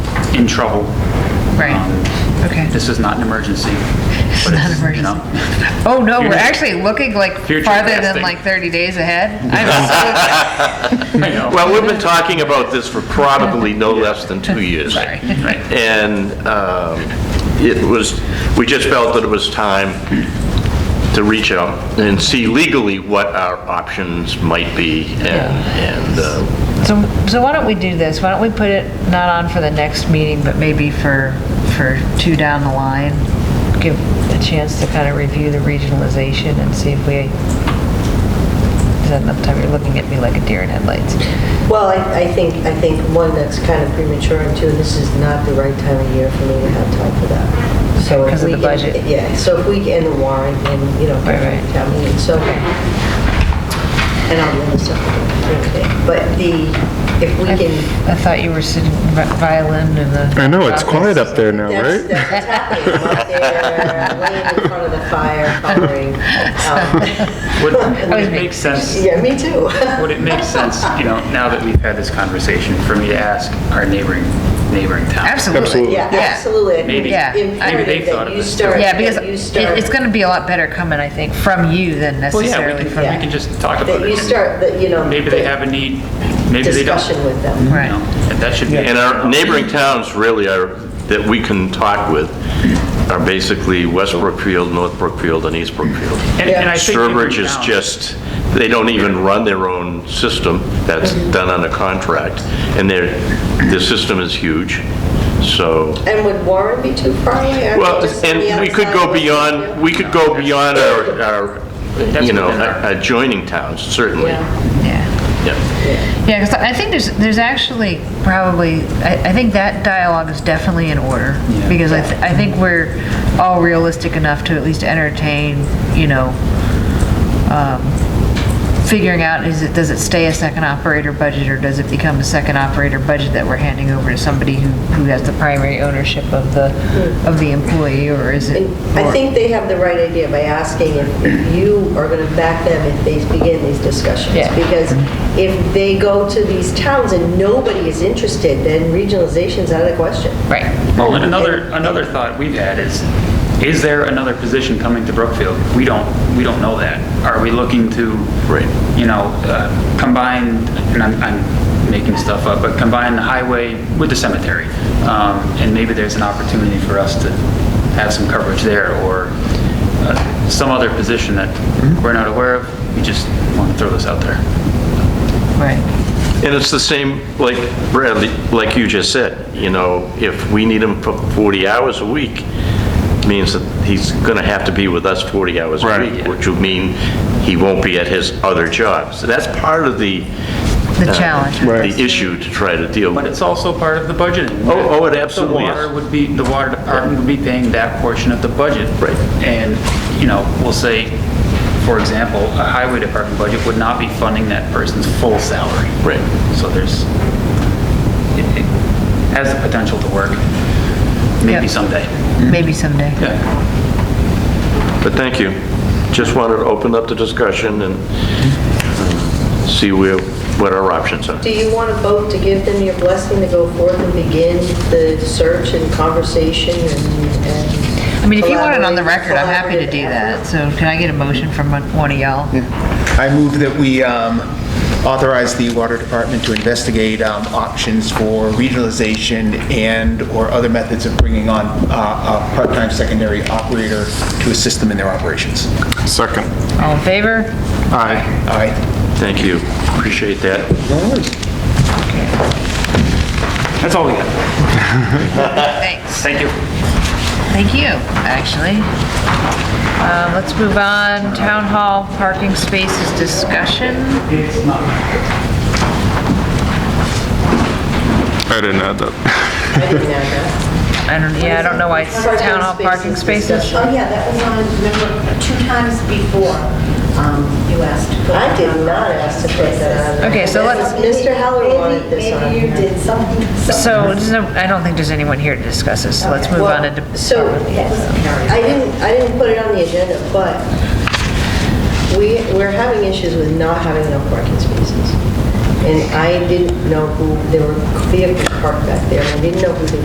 in trouble. Right. Um, Okay. This is not an emergency. but Not it's, you know, Oh, no, we're Future- actually looking like Future farther than testing. like 30 days ahead. I'm I know. Well, we've been talking about this for probably no less than two years. Sorry. And um, it was, we just felt that it was time to reach out and see legally what our options might be and, and uh, So, so why don't we do this? Why don't we put it not on for the next meeting, but maybe for, for two down the line? Give a chance to kind of review the regionalization and see if we, is that enough time? You're looking at me like a deer in headlights. Well, I, I think, I think, one, that's kind of premature, and two, this is not the right time of year for me to have time for that. So if Because of we the can- budget. Yeah, so if we can, and the warrant, and, you know, Right, right. town meeting, so, and I'll be on the second, but the, if we can, I thought you were sitting vi- violin in the. I know, it's quiet office. up there now, that's, right? that's what's happening, I'm up there, laying in front of the fire, coloring. um, Would would it me. make sense, Yeah, me too. would it make sense, you know, now that we've had this conversation, for me to ask our neighboring, neighboring towns? Absolutely. Absolutely. Yeah, Yeah. absolutely. I think Maybe- Yeah. it's maybe they've Imperative thought of that you this too. start, Yeah, because that you it- start. it's going to be a lot better coming, I think, from you than Well, yeah, we necessarily can, from. we can just talk about it. That you and start, that, you know. Maybe they have a need, maybe they don't. Discussion with them. You know, and That should be. and our neighboring towns really are, that we can talk with are basically West Brookfield, North Brookfield, and East Brookfield. And- and I think neighboring Sturbridge is towns- just, they don't even run their own system, that's done on a contract, and their, their system is huge, so, And would Warren be too far away? I mean, well, just on the and we could outside go of beyond, Lakeview? we could go beyond our, our, That's you know, within our- adjoining towns, certainly. Yeah. Yeah. Yeah. Yeah, because I think there's, there's actually probably, I, I think that dialogue is definitely in order. Yeah. Because I, th- I think we're all realistic enough to at least entertain, you know, um, figuring out, is it, does it stay a second operator budget or does it become a second operator budget that we're handing over to somebody who, who has the primary ownership of the, of the employee or is it? And I or- think they have the right idea by asking if- if you are going to back them if they begin these discussions. Yeah. Because if they go to these towns and nobody is interested, then regionalization's out of the question. Right, Well, and another, another thought we've had is, is there another position coming to Brookfield? We don't, we don't know that. Are we looking to, Right. you know, uh, combine, and I'm, I'm making stuff up, but combine the highway with the cemetery? Um, And maybe there's an opportunity for us to have some coverage there, or uh, some other position that we're not aware of. We just want to throw this out there. right. And it's the same, like Bradley, like you just said, you know, if we need him for 40 hours a week, means that he's going to have to be with us 40 hours a Right. week, which would mean he won't be at his other job. So that's part of the... The uh, challenge. Right. The issue to try to deal But with. it's also part of the budgeting. Oh, oh, it absolutely The water is. would be, the water department would be paying that portion of the budget. Right. And, you know, we'll say, for example, a highway department budget would not be funding that person's full salary. Right. So there's, it it has the potential to work, maybe Yeah. someday. Maybe someday. Yeah. But thank you. Just wanted to open up the discussion and um, see where, what our options are. Do you want to vote to give them your blessing to go forth and begin the search and conversation and- and? I mean, if you want it on the record, I'm happy to do collaborative that. effort? So can I get a motion from one of y'all? I move that we um, authorize the Water Department to investigate um, options for regionalization and/or other methods of bringing on uh, a part-time secondary operator to assist them in their operations. Second. All in favor? Aye. Aye. Thank you. Appreciate that. That's all we have. Thanks. Thank you. Thank you, actually. Um, Let's move on. Town hall parking spaces discussion. I didn't add that. I didn't add that. I don't, yeah, I don't know why it's town hall parking spaces. discussion. Oh, yeah, that was on, remember, two times before um, you asked to put. I did not ask to put that on. Okay, so let's- Mr. Heller Maybe- wanted this on. Maybe you did something. So there's no- I don't think there's anyone here to discuss this, so let's move on Well, to. so, I didn't, I didn't put it on the agenda, but we, we're having issues with not having enough parking spaces. And I didn't know who, there were vehicles parked back there, and I didn't know who the